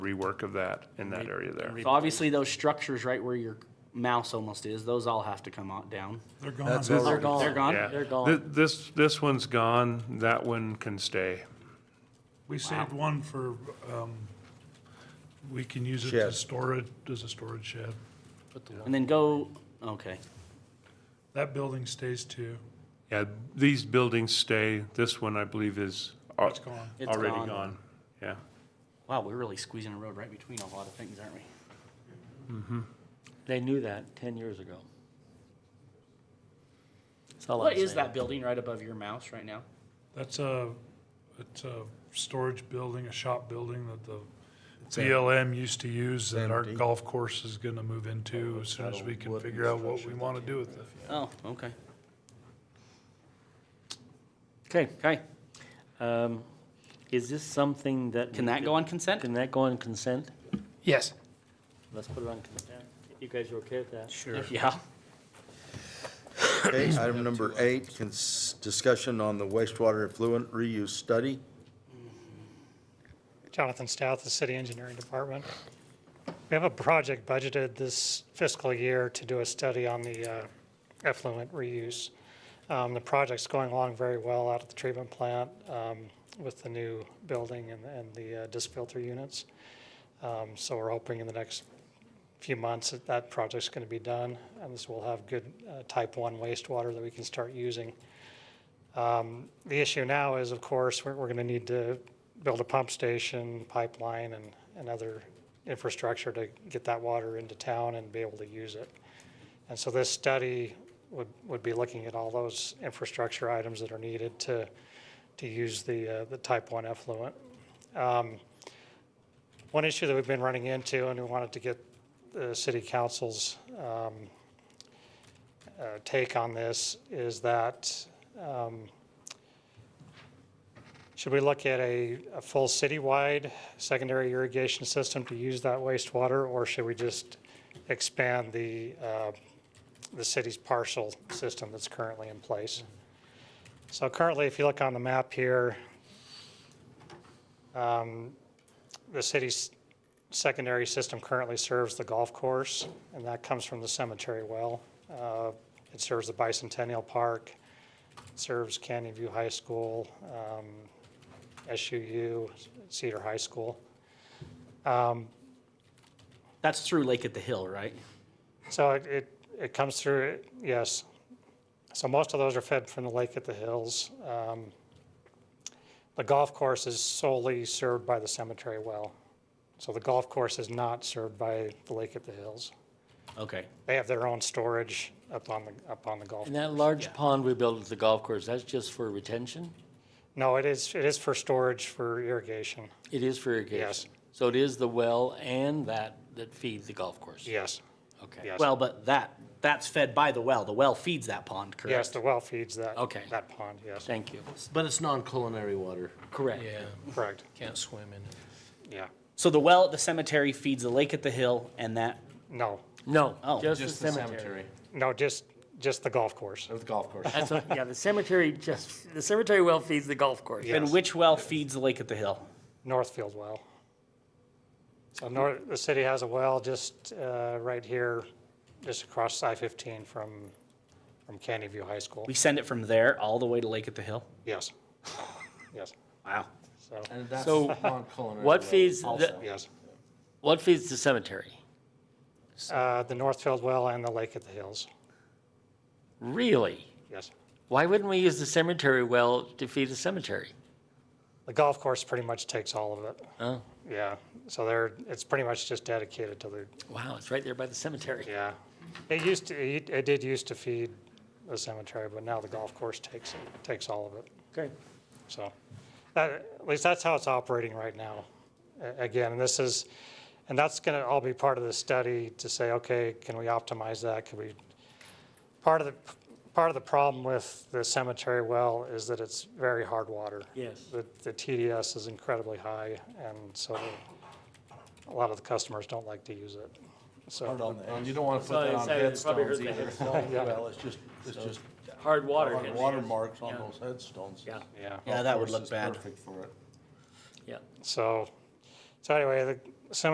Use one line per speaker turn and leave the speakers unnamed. rework of that in that area there.
So obviously those structures right where your mouse almost is, those all have to come out down.
They're gone.
That's
They're
all
They're
right.
gone, they're gone,
Yeah.
they're
Thi-
gone.
This, this one's gone, that one can stay.
We saved one for, um, we can use it to
Shed.
store it as a storage shed.
And then go, okay,
That building stays too.
Yeah, these buildings stay, this one I believe is al-
It's gone.
It's
already
gone.
gone, yeah.
wow, we're really squeezing a road right between a lot of things, aren't we?
They knew that 10 years ago. That's all
What
I'm
is
saying.
that building right above your mouse right now?
That's a, it's a storage building, a shop building that the
It's a-
BLM used to use that our
empty.
golf course is gonna move into as soon as we can
Wooden
figure out what we
structure
wanna
that
do
you
with it.
have.
Oh, okay.
Okay,
Okay,
um, is this something that?
can that go on consent?
Can that go on consent?
Yes.
Let's put it on consent. You guys are okay with that?
Sure. Yeah.
Okay, item number eight, cons- discussion on the wastewater effluent reuse study.
Jonathan Stout, the City Engineering Department. We have a project budgeted this fiscal year to do a study on the uh, effluent reuse. Um, The project's going along very well out at the treatment plant um, with the new building and- and the uh, disc filter units. Um, So we're hoping in the next few months that that project's going to be done, and this will have good uh, type 1 wastewater that we can start using. Um, The issue now is, of course, we're, we're going to need to build a pump station, pipeline, and, and other infrastructure to get that water into town and be able to use it. And so this study would, would be looking at all those infrastructure items that are needed to, to use the, uh, the type one effluent. Um, One issue that we've been running into, and we wanted to get the city council's, um, uh, take on this is that, um, should we look at a, a full citywide secondary irrigation system to use that wastewater? Or should we just expand the, uh, the city's parcel system that's currently in place? So currently, if you look on the map here, um, the city's secondary system currently serves the golf course, and that comes from the cemetery well. Uh, It serves the Bicentennial Park, it serves Canyon View High School, um, SUU, Cedar High School. Um,
That's through Lake at the Hill, right?
So it- it, it comes through, yes. So most of those are fed from the lake at the hills. Um, The golf course is solely served by the cemetery well. So the golf course is not served by the lake at the hills.
Okay.
They have their own storage up on the, up on the golf.
And that large pond we built at the golf course, that's just for retention?
No, it is, it is for storage for irrigation,
It is for irrigation?
Yes.
So it is the well and that that feed the golf course?
yes,
Okay.
yes.
Well, but that, that's fed by the well. The well feeds that pond, correct?
Yes, the well feeds that.
Okay.
That pond, yes,
Thank you.
But it's non-culinary water.
Correct.
correct,
Can't swim in it.
yeah.
So the well at the cemetery feeds the lake at the hill and that,
No,
No,
Oh.
just the cemetery.
no, just, just the golf course.
Of the golf course.
That's, what- yeah, the cemetery just, the cemetery well feeds the golf course.
Yes.
and which well feeds the lake at the hill?
Northfield well. So north, the city has a well just uh, right here, just across I-15 from, from Canyon View High School.
We send it from there all the way to Lake at the Hill?
Yes, yes,
Wow.
so,
And that's
So,
non-culinary.
What
water.
feeds, the-
yes.
what feeds the cemetery?
Uh, The Northfield well and the lake at the hills,
Really?
yes.
Why wouldn't we use the cemetery well to feed the cemetery?
The golf course pretty much takes all of it,
Oh,
yeah. So they're, it's pretty much just dedicated to the,
wow, it's right there by the cemetery.
yeah. It used to, it it did used to feed the cemetery, but now the golf course takes, it takes all of it.
Okay.
So, that, at least that's how it's operating right now. A- Again, this is, and that's going to all be part of the study to say, okay, can we optimize that? Can we, part of the, part of the problem with the cemetery well is that it's very hard water.
Yes.
The, the TDS is incredibly high, and so a lot of the customers don't like to use it.
Hard
So,
on the edge. You don't want to
So
put that on
it's- it's probably
headstones
hurt the
either.
headstone.
Well, it's just, it's just
Hard water.
on watermarks on those headstones.
Yeah,
yeah.
Yeah, that would
Course
look
is
bad.
Perfect for it.
yeah.
So, so anyway, the,